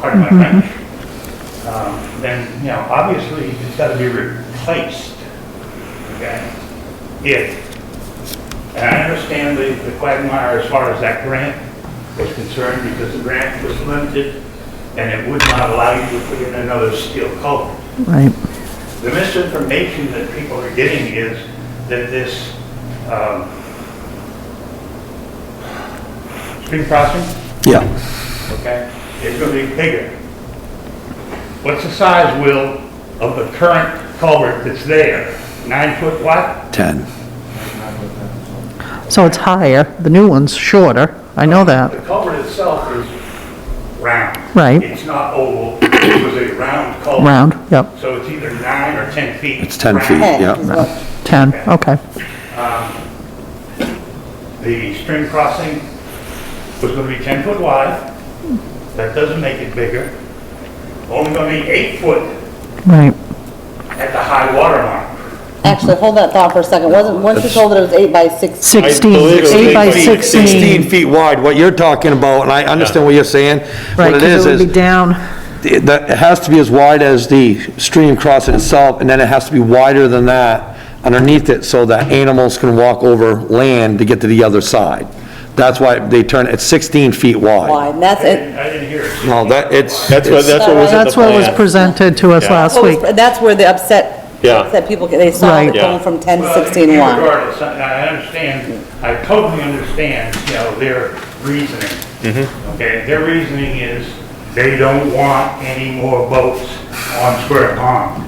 part of my ranch, um, then, you know, obviously, it's got to be replaced, okay? If, and I understand the the quagmire as far as that grant was concerned, because the grant was limited, and it would not allow you to put in another steel culvert. right, The misinformation that people are getting is that this um, stream crossing, Yeah, okay, is going to be bigger. What's the size, Will, of the current culvert that's there? Nine foot wide? 10. so it's higher, the new one's shorter, I know that, The culvert itself is round. Right. It's not oval, it was a round culvert. round, yep, So it's either nine or 10 feet. It's 10 round. feet. Ten Yeah. is what, 10, okay, The stream crossing was gonna be ten foot wide. That doesn't make it bigger. Only gonna be eight foot right, at the high water mark. actually, hold that thought for a second, wasn't, once you told it it was eight by six, 16, believe it was 8 by 16 16. feet wide, what you're talking about, and I understand what you're saying. Right, What it 'cause is, it would be is down, it- that, it has to be as wide as the stream crossing itself, and then it has to be wider than that underneath it so that animals can walk over land to get to the other side. That's why they turn, it's 16 feet wide. wide, and that's I it. didn't I didn't hear it. No, that, it's. That's what, it's- that's what was in the that's what was plan. presented to us last What was- week, That's where the upset, Yeah. that people, they saw Right. it going from ten to Well, sixteen wide. Regardless, I I understand, I totally understand, you know, their reasoning. Okay, their reasoning is they don't want any more boats on Square Pond.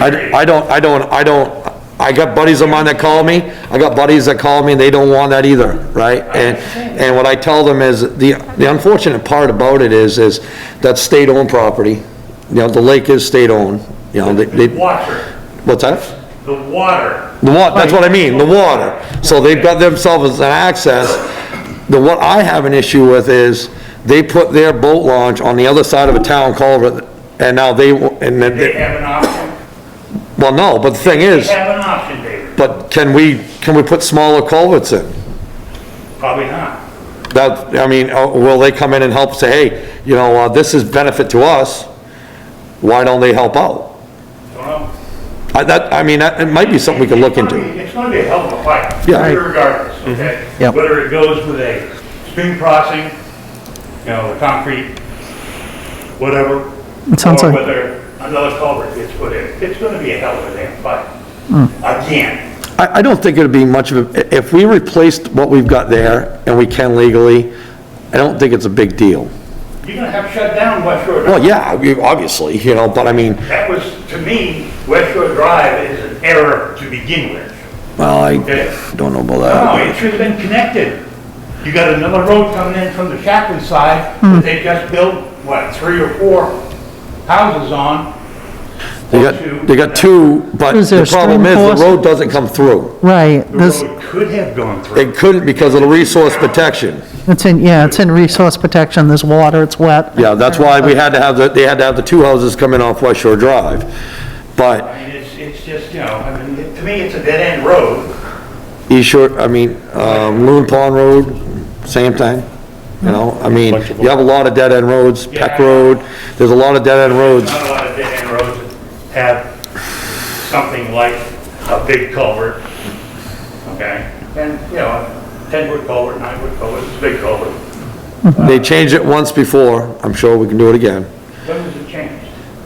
I, I don't, I don't, I don't, I got buddies of mine that call me, I got buddies that call me, and they don't want that either, right? And, and what I tell them is, the, the unfortunate part about it is, is that's state-owned property, you know, the lake is state-owned, you know, they, The they, water, what's that? the water The wa, that's what I mean, the water, so they've got themselves an access. The, what I have an issue with is, they put their boat launch on the other side of a town culvert, and now they, wa- and then, They they- have an option. well, no, but the thing They is. have an option, David. But can we, can we put smaller culverts in? Probably not. That, I mean, uh, will they come in and help say, hey, you know, uh, this is benefit to us, why don't they help out? Don't know. I, that, I mean, that, it might be something we could look It's gonna into. be- It's gonna be a hell of a fight. Yeah. Right. Regardless, okay? Yep. Whether it goes with a stream crossing, you know, the concrete, whatever. It sounds like- Or whether another culvert gets put in, it's gonna be a hell of a damn fight. Mm. Again. I, I don't think it'd be much of, a if we replaced what we've got there, and we can legally, I don't think it's a big deal. You're gonna have to shut down West Shore Drive. Well, yeah, we- obviously, you know, but I mean, That was, to me, West Shore Drive is an error to begin with. well, I Okay. Oh, don't know about No, it that. should have been connected. You got another road coming in from the Chaplin side, that they just built, what, three or four houses on? They Or got, they got two, but Is there the problem stream is, force? the road doesn't come through. right, The this, road could have gone through. It couldn't because of the resource protection. it's in, yeah, it's in resource protection, there's water, it's wet. Yeah, that's why we had to have, the they had to have the two houses coming off West Shore Drive. But I mean, it's, it's just, you know, I mean, it- to me, it's a dead-end road. East Shore, I mean, um, Loon Pond Road, same thing, you know? I mean, you have a lot of dead-end roads, Peck Yeah. Road, there's a lot of dead-end roads. Not a lot of dead-end roads have something like a big culvert, okay? And, you know, a ten-foot culvert, nine-foot culvert, it's a big culvert. They changed it once before, I'm sure we can do it again. When was it changed?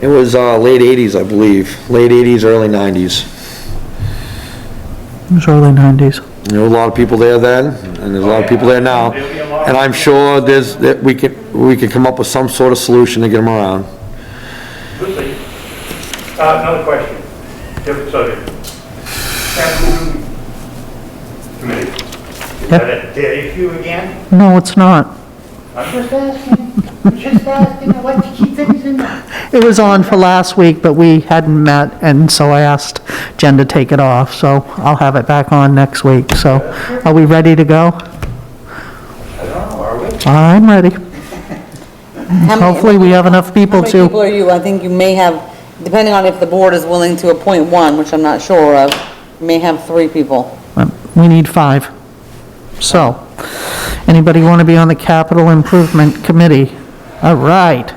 It was, uh, late 80s, I believe, late 80s, early 90s. It was early 90s. There were a lot of people there then, and there's a lot of people there now. And I'm sure there's, that we can, we can come up with some sort of solution to get them around. We'll see. Uh, another question, different subject. Capital Committee. Is that a dead issue again? No, it's not. I'm just asking, I'm just asking, I like to keep things in mind. It was on for last week, but we hadn't met, and so I asked Jen to take it off, so I'll have it back on next week. So are we ready to go? I don't know, are we? I'm ready. How many- Hopefully, we have enough How people many people to, are you, I think you may have, depending on if the board is willing to appoint one, which I'm not sure of, you may have three people. Um, we need five. So, anybody want to be on the Capital Improvement Committee? All right.